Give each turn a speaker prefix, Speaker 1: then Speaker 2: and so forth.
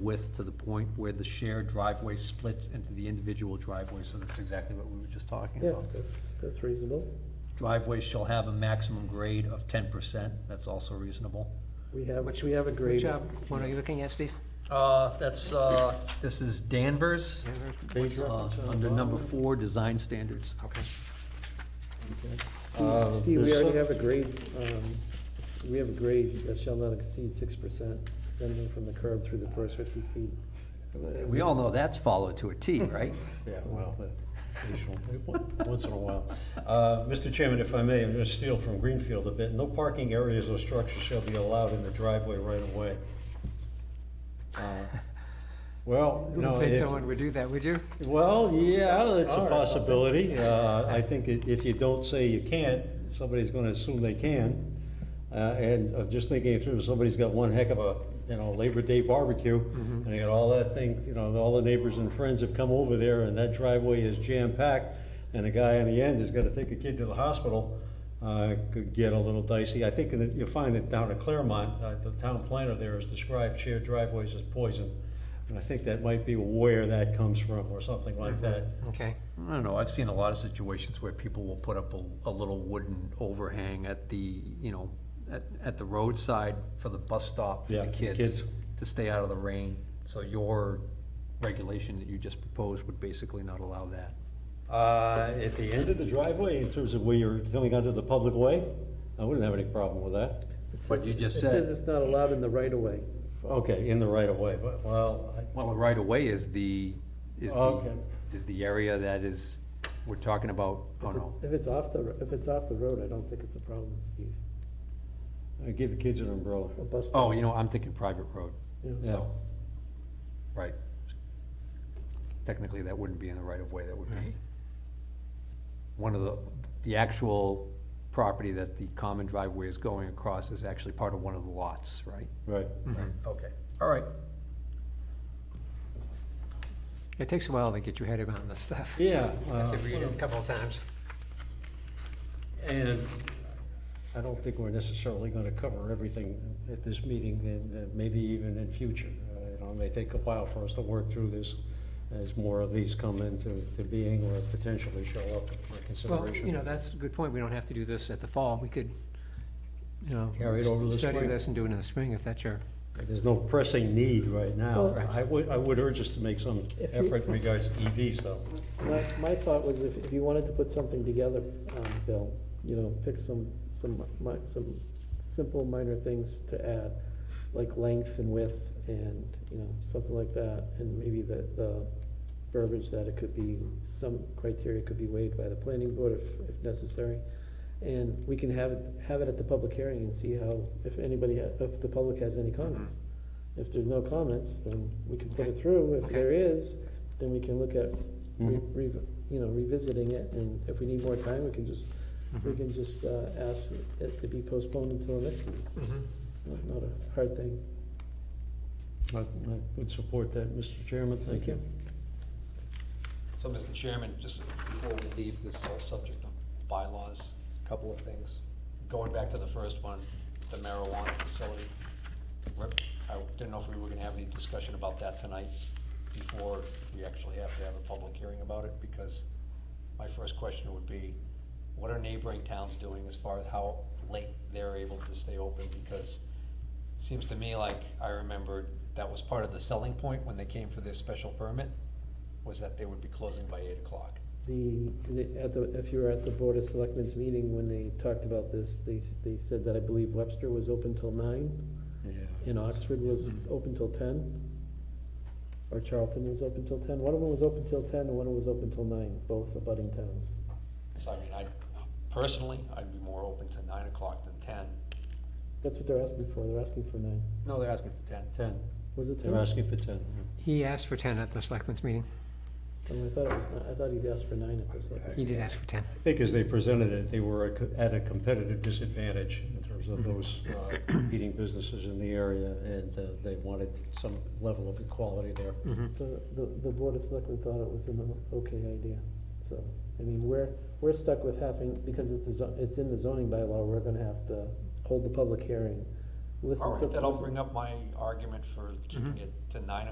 Speaker 1: width to the point where the shared driveway splits into the individual driveway, so that's exactly what we were just talking
Speaker 2: Yeah,
Speaker 1: about.
Speaker 2: that's, that's reasonable.
Speaker 1: Driveways shall have a maximum grade of ten percent, that's also reasonable.
Speaker 2: We have,
Speaker 3: Which-
Speaker 2: we have a grade.
Speaker 3: Which, uh, what are you looking at, Steve?
Speaker 1: Uh, that's, uh, this is Danvers,
Speaker 4: Page
Speaker 1: uh,
Speaker 4: reference on the
Speaker 1: under number
Speaker 4: bottom.
Speaker 1: four, design standards.
Speaker 3: Okay.
Speaker 4: Uh,
Speaker 2: Steve, we
Speaker 4: the
Speaker 2: already
Speaker 4: sub-
Speaker 2: have a grade, um, we have a grade that shall not exceed six percent descending from the curb through the first fifty feet.
Speaker 1: We all know that's followed to a T, right?
Speaker 4: Yeah, well, but occasional- once in a while. Uh, Mr. Chairman, if I may, I'm going to steal from Greenfield a bit. No parking areas or structures shall be allowed in the driveway right of way. Uh, Well,
Speaker 3: You
Speaker 4: no,
Speaker 3: don't think
Speaker 4: if,
Speaker 3: someone would do that, would you?
Speaker 4: well, yeah, it's a possibility. Uh, I think i- if you don't say you can't, somebody's going to assume they can. Uh, And I'm just thinking it through, somebody's got one heck of a, you know, Labor Day barbecue, and they got all that thing, you know, all the neighbors and friends have come over there, and that driveway is jam-packed, and the guy on the end has got to take a kid to the hospital, uh, could get a little dicey. I think that you'll find that down at Claremont, uh, the town planner there has described shared driveways as poison. And I think that might be where that comes from, or something like that.
Speaker 3: Okay.
Speaker 1: I don't know, I've seen a lot of situations where people will put up a, a little wooden overhang at the, you know, at, at the roadside for the bus stop for
Speaker 4: Yeah,
Speaker 1: the
Speaker 4: the
Speaker 1: kids,
Speaker 4: kids.
Speaker 1: to stay out of the rain. So your regulation that you just proposed would basically not allow that.
Speaker 4: Uh, At the end of the driveway, in terms of where you're coming onto the public way, I wouldn't have any problem with that.
Speaker 2: It
Speaker 1: But
Speaker 2: says-
Speaker 1: you just
Speaker 2: It
Speaker 1: said-
Speaker 2: says it's not allowed in the right of way.
Speaker 4: Okay, in the right of way, but, well, I-
Speaker 1: Well, the right of way is the, is the,
Speaker 4: Okay.
Speaker 1: is the area that is, we're talking about, oh
Speaker 2: If it's,
Speaker 1: no.
Speaker 2: if it's off the, if it's off the road, I don't think it's a problem, Steve.
Speaker 4: I give the kids an umbrella.
Speaker 2: A bus stop,
Speaker 1: Oh, you know, I'm thinking private road,
Speaker 2: you know,
Speaker 4: Yeah.
Speaker 1: so, right. Technically, that wouldn't be in the right of way, that would be one of the, the actual property that the common driveway is going across is actually part of one of the lots, right?
Speaker 4: Right.
Speaker 1: Okay, all right.
Speaker 3: It takes a while to get your head around this stuff. You
Speaker 4: Yeah.
Speaker 3: have to
Speaker 4: uh,
Speaker 3: read it a couple of times.
Speaker 4: And I don't think we're necessarily going to cover everything at this meeting, and uh, maybe even in future. Uh, You know, it may take a while for us to work through this as more of these come into to being or potentially show up for
Speaker 3: Well,
Speaker 4: consideration.
Speaker 3: you know, that's a good point. We don't have to do this at the fall. We could, you know.
Speaker 4: Carry it over to the
Speaker 3: Study
Speaker 4: spring.
Speaker 3: this and do it in the spring if that's your,
Speaker 4: There's no pressing need right now.
Speaker 2: Well-
Speaker 4: I would, I would urge us to make some
Speaker 2: If you-
Speaker 4: effort in regards to EVs, though.
Speaker 2: My, my thought was if, if you wanted to put something together, um, Bill, you know, pick some, some, mi- some simple minor things to add, like length and width and, you know, something like that, and maybe the, the verbiage that it could be, some criteria could be waived by the planning board if, if necessary. And we can have, it have it at the public hearing and see how, if anybody, ha- if the public has any comments. If there's no comments, then we can put it
Speaker 3: Mm-hmm. Okay.
Speaker 2: through. If
Speaker 3: Okay.
Speaker 2: there is, then we can look at re,
Speaker 4: Mm-hmm.
Speaker 2: re, you know, revisiting it, and if we need more time, we can just,
Speaker 4: Mm-hmm.
Speaker 2: we can just, uh, ask it to be postponed until next week. Not- Not a hard thing.
Speaker 4: I I would support that, Mr. Chairman, thank you.
Speaker 1: So, Mr. Chairman, just before we leave this whole subject of bylaws, a couple of things. Going back to the first one, the marijuana facility. Rep- I didn't know if we were gonna have any discussion about that tonight before we actually have to have a public hearing about it, because my first question would be, what are neighboring towns doing as far as how late they're able to stay open? Because it seems to me like I remembered that was part of the selling point when they came for this special permit, was that they would be closing by eight o'clock.
Speaker 2: The, the- at the, if you were at the Board of Selectmen's meeting when they talked about this, they, s- they said that I believe Webster was open till nine, and Oxford was
Speaker 4: Mm-hmm.
Speaker 2: open till ten, or Charlton was open till ten. One of them was open till ten, and one of them was open till nine, both abutting towns.
Speaker 1: So I mean, I, personally, I'd be more open to nine o'clock than ten.
Speaker 2: That's what they're asking for, they're asking for nine.
Speaker 1: No, they're asking for ten.
Speaker 4: Ten,
Speaker 2: Was it 10
Speaker 4: they're asking for ten.
Speaker 3: he asked for ten at the selectmen's meeting.
Speaker 2: Oh, I mean, I thought it was, ni- I thought he'd asked for nine at this level.
Speaker 3: He did ask for ten.
Speaker 4: I think as they presented it, they were a co- at a competitive disadvantage in terms of those uh, competing businesses in the area, and uh, they wanted some level of equality there.
Speaker 3: Mm-hmm.
Speaker 2: The, the, the Board of Selectmen thought it was an o- okay idea, so, I mean, we're, we're stuck with having, because it's, a zo- it's in the zoning bylaw, we're gonna have to hold the public hearing. listen
Speaker 1: All
Speaker 2: to-
Speaker 1: right, that'll
Speaker 2: listen-
Speaker 1: bring up my argument for keeping it to nine